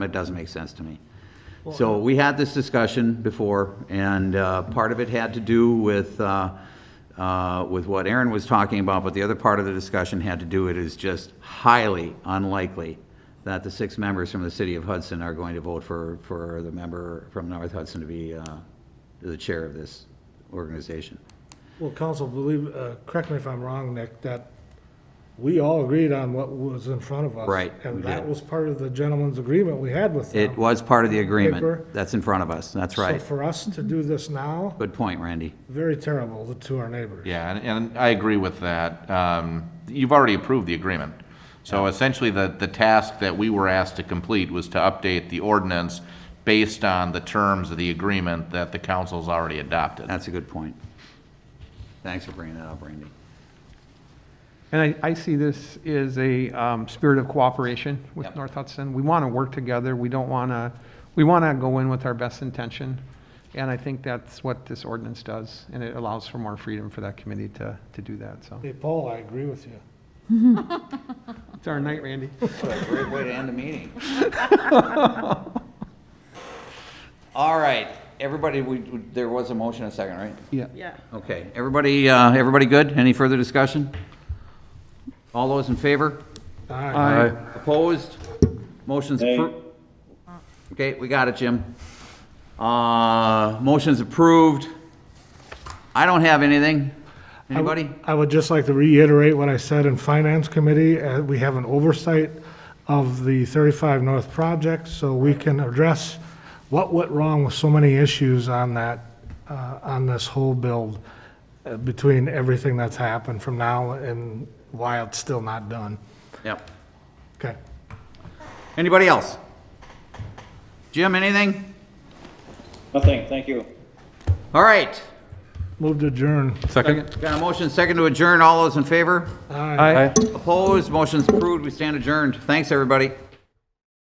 It doesn't make sense to me. So we had this discussion before, and uh, part of it had to do with, uh, uh, with what Aaron was talking about, but the other part of the discussion had to do, it is just highly unlikely that the six members from the city of Hudson are going to vote for, for the member from North Hudson to be uh, the chair of this organization. Well, council, believe, uh, correct me if I'm wrong, Nick, that we all agreed on what was in front of us. Right, we And that did. was part of the gentleman's agreement we had with them. It was part of the Paper. agreement. That's in front of us. That's right. So for us to do this now, Good point, Randy. very terrible to our neighbors. Yeah, and, and I agree with that. Um, you've already approved the agreement. So essentially, the, the task that we were asked to complete was to update the ordinance based on the terms of the agreement that the council's already adopted. That's a good point. Thanks for bringing that up, Randy. And I, I see this as a um, spirit of cooperation with Yep. North Hudson. We want to work together. We don't want to, we want to go in with our best intention. And I think that's what this ordinance does, and it allows for more freedom for that committee to, to do that, so. Hey, Paul, I agree with you. It's our night, Randy. What a great way to end a meeting. All right, everybody, we, we- there was a motion a second, right? Yeah. Yeah. Okay, everybody, uh, everybody good? Any further discussion? All those in favor? All right. Aye. Opposed? Motion's approved. Okay, we got it, Jim. Uh, motion's approved. I don't have anything. Anybody? I would just like to reiterate what I said in Finance Committee. Uh, We have an oversight of the 35 North project, so we can address what went wrong with so many issues on that, uh, on this whole build, uh, between everything that's happened from now and why it's still not done. Yep. Okay. Anybody else? Jim, anything? Nothing, thank you. All right. Move to adjourn. Second. Got a motion, second to adjourn. All those in favor? Aye. Aye. Opposed? Motion's approved. We stand adjourned. Thanks, everybody.